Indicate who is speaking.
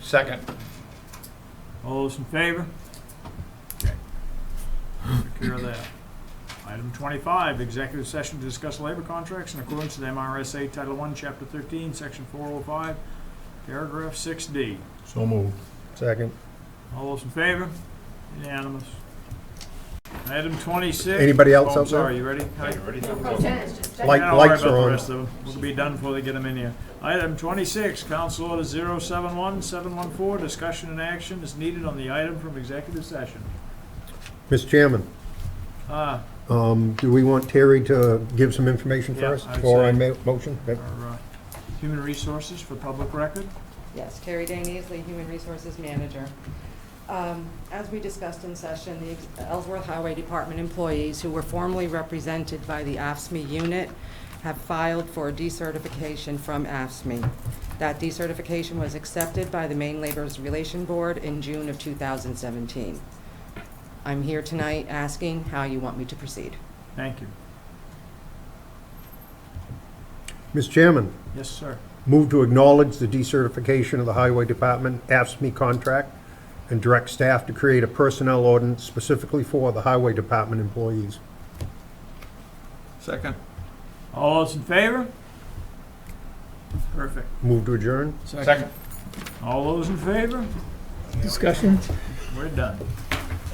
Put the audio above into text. Speaker 1: Second.
Speaker 2: All those in favor? Okay. Take Care of that. Item twenty-five, executive session to discuss labor contracts in accordance with MRSA Title One, Chapter thirteen, Section four oh five, paragraph six D.
Speaker 3: So moved.
Speaker 1: Second.
Speaker 2: All those in favor? Unanimous. Item twenty-six.
Speaker 1: Anybody else
Speaker 2: Oh, I'm
Speaker 1: out there?
Speaker 2: sorry, you ready? Hi.
Speaker 1: Light-
Speaker 2: Yeah, don't worry
Speaker 1: lights
Speaker 2: about
Speaker 1: are
Speaker 2: the
Speaker 1: on.
Speaker 2: rest of them. We'll be done before they get them in here. Item twenty-six, council order zero seven one seven one four, discussion and action is needed on the item from executive session.
Speaker 1: Mr. Chairman,
Speaker 2: Ah,
Speaker 1: um, do we want Terry to give some information
Speaker 2: Yeah,
Speaker 1: for us
Speaker 2: I'd
Speaker 1: before I
Speaker 2: say-
Speaker 1: ma- motion? That-
Speaker 2: our, uh, human resources for public record.
Speaker 4: Yes, Terry Dane Easley, Human Resources Manager. Um, As we discussed in session, the ex- Ellsworth Highway Department employees who were formerly represented by the AFSMI E unit have filed for decertification from AFSMI. E. That decertification was accepted by the Maine Labor's Relation Board in June of 2017. I'm here tonight asking how you want me to proceed.
Speaker 2: Thank you.
Speaker 1: Mr. Chairman,
Speaker 2: Yes, sir.
Speaker 1: move to acknowledge the decertification of the Highway Department AFSMI E contract and direct staff to create a personnel ordinance specifically for the Highway Department employees.
Speaker 3: Second.
Speaker 2: All those in favor? Perfect.
Speaker 1: Move to adjourn?
Speaker 3: Second.
Speaker 2: All those in favor?
Speaker 5: Discussion?
Speaker 2: We're done.